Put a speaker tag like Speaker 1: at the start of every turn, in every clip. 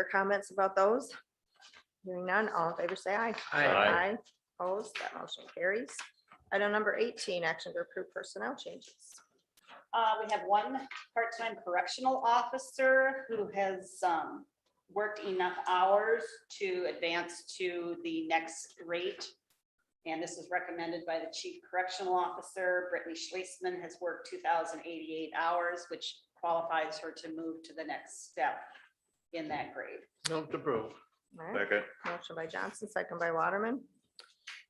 Speaker 1: or comments about those? Hearing none, all in favor, say aye.
Speaker 2: Aye.
Speaker 1: Aye. Opposed, that motion carries. Item number eighteen, action to approve personnel changes.
Speaker 3: Uh, we have one part-time correctional officer who has, um, worked enough hours to advance to the next rate. And this is recommended by the chief correctional officer. Brittany Schlesman has worked two thousand eighty-eight hours, which qualifies her to move to the next step in that grade.
Speaker 2: Move to approve.
Speaker 1: All right,
Speaker 4: Second.
Speaker 1: motion by Johnson, second by Waterman.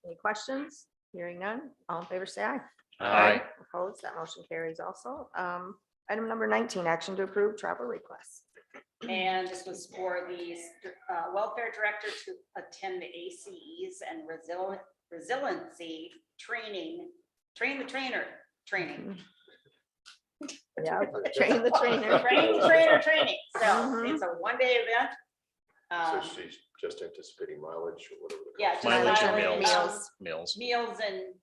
Speaker 1: Any questions? Hearing none, all in favor, say aye.
Speaker 2: Aye.
Speaker 1: Opposed, that motion carries also. Um, item number nineteen, action to approve travel requests.
Speaker 3: And this was for the uh, welfare director to attend the ACEs and resilient, resiliency training, train the trainer, training.
Speaker 1: Yeah, train the trainer.
Speaker 3: Train the trainer, training. So
Speaker 1: Mhm.
Speaker 3: it's a one-day event.
Speaker 4: So
Speaker 3: Um,
Speaker 4: she's just anticipating mileage or whatever. the
Speaker 3: Yeah.
Speaker 4: cost
Speaker 3: just
Speaker 4: is.
Speaker 2: Mileage and
Speaker 3: mileage,
Speaker 1: meals.
Speaker 3: um,
Speaker 5: Mills.
Speaker 3: Meals and,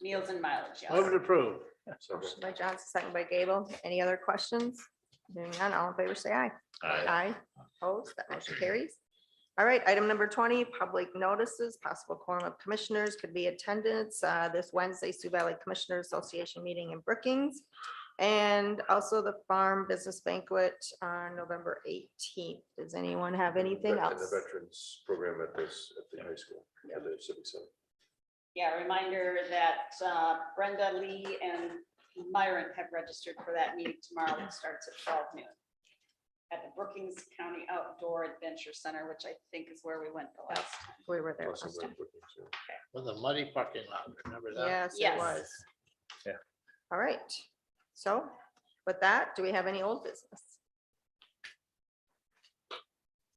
Speaker 3: meals and mileage, yes.
Speaker 2: Move to approve.
Speaker 4: Second.
Speaker 1: Motion by Johnson, second by Gable. Any other questions? Hearing none, all in favor, say aye.
Speaker 5: Aye.
Speaker 1: Aye. Opposed, that motion carries. All right, item number twenty, public notices, possible quorum of commissioners could be attendance, uh, this Wednesday, Sioux Valley Commissioner Association meeting in Brookings. And also the Farm Business Banquet on November eighteenth. Does anyone have anything
Speaker 4: Vet- and
Speaker 1: else?
Speaker 4: The veterans program at this, at the high school, at the civic center.
Speaker 3: Yeah, reminder that uh, Brenda Lee and Myron have registered for that meeting tomorrow. It starts at twelve noon at the Brookings County Outdoor Adventure Center, which I think is where we went the last. time.
Speaker 1: We were there
Speaker 4: Plus
Speaker 1: last
Speaker 4: the
Speaker 1: time.
Speaker 4: vet bookings, yeah.
Speaker 2: With a muddy parking lot, remember that?
Speaker 1: Yes, it
Speaker 3: Yes.
Speaker 1: was.
Speaker 5: Yeah.
Speaker 1: All right. So with that, do we have any old business?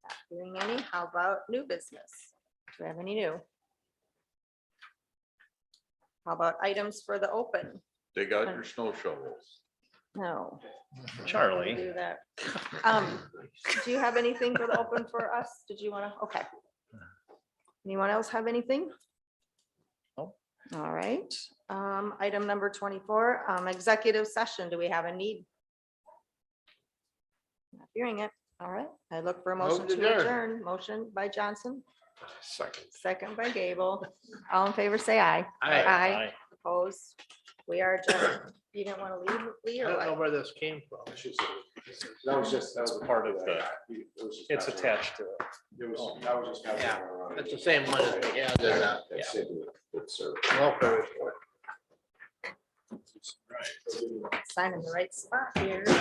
Speaker 1: Not Doing any? How about new business? Do we have any new? How about items for the open?
Speaker 6: They got your snow shovels.
Speaker 1: No.
Speaker 5: Charlie.
Speaker 1: Do that. Um, Do you have anything for the open for us? Did you want to, okay. Anyone else have anything?
Speaker 5: No.
Speaker 1: All right, um, item number twenty-four, um, executive session. Do we have a need? Not Hearing it. All right, I look for a
Speaker 2: Move
Speaker 1: motion
Speaker 2: to
Speaker 1: to
Speaker 2: adjourn.
Speaker 1: adjourn. Motion by Johnson,
Speaker 4: Second.
Speaker 1: second by Gable. All in favor, say aye.
Speaker 2: Aye.
Speaker 1: Opposed? We are adjourned. You didn't want to leave, Lee,
Speaker 2: I
Speaker 1: or
Speaker 2: don't know
Speaker 1: what?
Speaker 2: where this came from.
Speaker 4: That was just, that was a part of
Speaker 5: the-
Speaker 4: It was just
Speaker 5: It's
Speaker 4: passing
Speaker 5: attached to it.
Speaker 4: around. It was, that was just. passing
Speaker 2: Yeah,
Speaker 4: around.
Speaker 2: It's the same money. that we had in that,
Speaker 4: That's
Speaker 2: yeah.
Speaker 4: it, it's, uh,
Speaker 2: Welfare report.
Speaker 1: Sign in the right spot here.